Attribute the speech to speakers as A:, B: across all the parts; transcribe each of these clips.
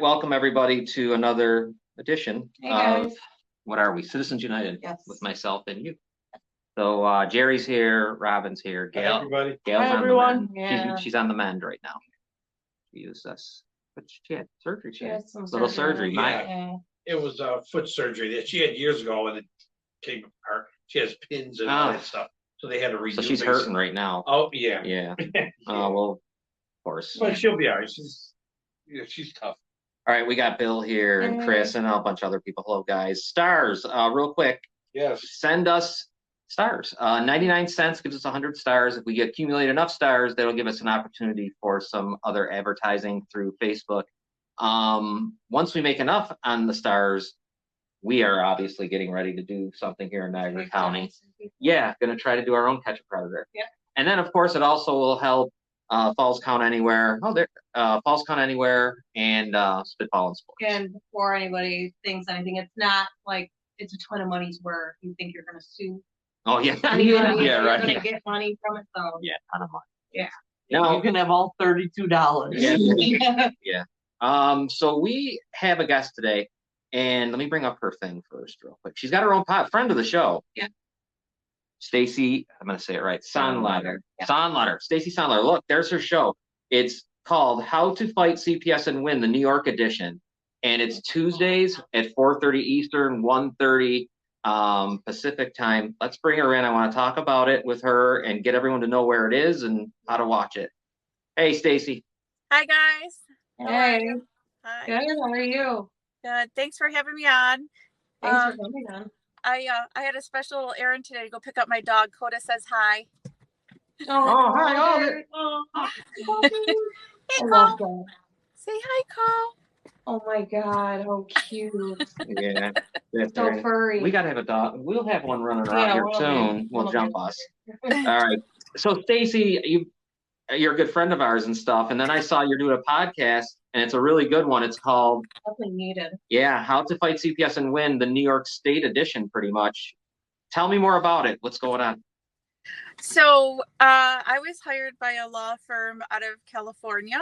A: welcome everybody to another edition
B: Hey,
A: of,
B: guys.
A: what are we, Citizens United
B: Yes.
A: with myself and you. So uh Jerry's here, Robin's here, Gail.
C: Everybody,
A: Gail's
B: Hi,
A: on the
B: everyone.
A: mend. She's-
B: Yeah.
A: She's on the mend right now. She used us, but she had surgery, she
B: She
A: had
B: had some
A: little surgery, my,
B: Yeah.
C: it was a foot surgery that she had years ago and it came apart. She has pins and
A: Ah.
C: all that stuff, so they had to redo.
A: so she's
C: basic-
A: hurting right now.
C: Oh, yeah.
A: Yeah, uh, well, of course.
C: But she'll be all right. She's, yeah, she's tough.
A: All right, we got Bill here and
B: Hey.
A: Chris and a bunch of other people. Hello, guys. Stars, uh, real quick,
C: Yes.
A: send us stars. Uh, 99 cents gives us 100 stars. If we accumulate enough stars, that'll give us an opportunity for some other advertising through Facebook. Um, once we make enough on the stars, we are obviously getting ready to do something here in Niagara County. Yeah, gonna try to do our own catch a predator.
B: Yeah.
A: And then, of course, it also will help uh, Falls Count Anywhere. Oh, there, uh, Falls Count Anywhere and uh, Spitball and Sports.
B: And before anybody thinks anything, it's not like it's a ton of money's where you think you're gonna sue.
A: Oh yeah,
B: You know what I mean?
A: yeah,
B: You're
A: right.
B: gonna
A: Yeah.
B: Get money from it, so.
A: Yeah, ton of money.
B: Yeah.
A: No,
D: You can have all thirty-two dollars.
A: Yeah. Um, so we have a guest today, and let me bring up her thing first, real quick. She's got her own pod, friend of the show.
B: Yeah.
A: Stacy, I'm gonna say it right. Sonletter.
B: Yeah.
A: Sonletter. Stacy Sonletter. Look, there's her show. It's called How to Fight CPS and Win, the New York edition. And it's Tuesdays at 4:30 Eastern, 1:30 um, Pacific time. Let's bring her in. I want to talk about it with her and get everyone to know where it is and how to watch it. Hey, Stacy.
E: Hi guys. How are
B: Hey,
E: you? Hi.
B: good, how are you?
E: Good. Thanks for having me on.
B: Thanks for
E: Um,
B: coming on.
E: I uh, I had a special little errand today to go pick up my dog. Coda says hi.
A: Oh, hi, oh, there-
B: Oh, hi.
E: Hey
B: I
E: Cole.
B: love that.
E: Say hi, Cole.
B: Oh my god, how cute,
A: Yeah. that's
B: so
A: right.
B: furry.
A: We gotta have a dog. We'll have one running around
B: Yeah,
A: here
B: we'll be-
A: soon. Will
B: we'll
A: jump
B: be-
A: us. All right. So Stacy, you you're a good friend of ours and stuff. And then I saw you're doing a podcast and it's a really good one. It's called
B: Definitely needed.
A: Yeah, How to Fight CPS and Win, the New York State edition, pretty much. Tell me more about it. What's going on?
E: So uh, I was hired by a law firm out of California.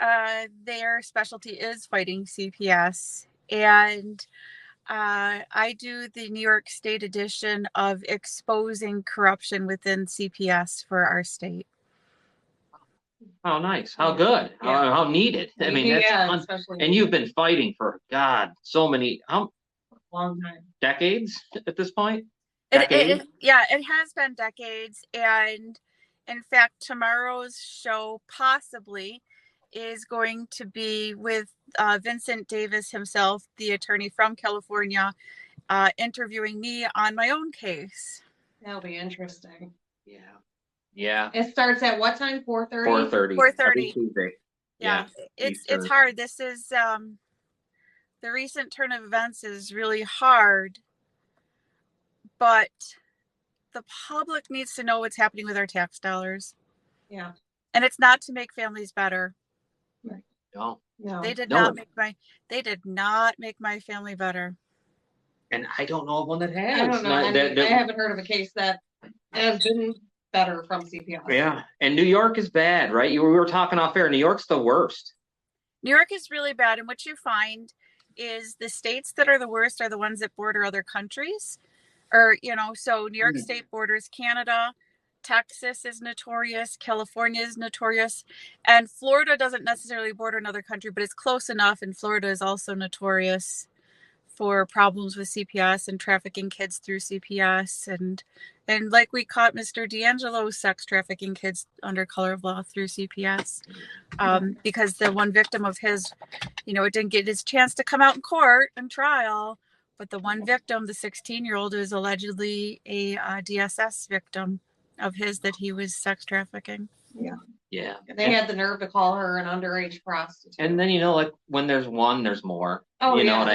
E: Uh, their specialty is fighting CPS, and uh, I do the New York State edition of exposing corruption within CPS for our state.
A: How Oh, nice. How good. How,
B: Yeah.
A: how needed. I mean, that's
B: Yeah,
A: un-
B: especially
A: and you've been fighting for God, so many how
B: Long time.
A: decades at this point?
E: It, it,
A: decade?
E: it- yeah, it has been decades. And in fact, tomorrow's show possibly is going to be with uh, Vincent Davis himself, the attorney from California, uh, interviewing me on my own case.
B: That'll be interesting.
A: Yeah. Yeah.
B: It starts at what time? Four thirty?
A: Four thirty.
E: 4:30.
A: Tuesday.
E: Yeah, it's it's
A: Eastern.
E: hard. This is um, the recent turn of events is really hard, but the public needs to know what's happening with our tax dollars,
B: Yeah,
E: and it's not to make families better.
A: No.
B: no.
E: They did
A: No.
E: not make my they did not make my family better.
A: And I don't know of one that has.
B: I don't know.
A: Not-
B: I,
A: that-
B: mean, I
A: that-
B: haven't heard of a case that has been better from CPS.
A: yeah. And New York is bad, right? You, we were talking off air. New York's the worst.
E: New York is really bad and what you find is the states that are the worst are the ones that border other countries. Or, you know, so New York
A: Mm.
E: State borders Canada, Texas is notorious, California is notorious, and Florida doesn't necessarily border another country, but it's close enough and Florida is also notorious for problems with CPS and trafficking kids through CPS and and like we caught Mr. D'Angelo sex trafficking kids under color of law through CPS um, because the one victim of his, you know, it didn't get his chance to come out in court and trial. But the one victim, the 16 year old, is allegedly a uh, DSS victim of his that he was sex trafficking.
A: Yeah.
B: They had the nerve to call her an underage prostitute.
A: And then you know, like when there's one, there's more.
B: Oh,
A: you know
B: yeah.
A: what I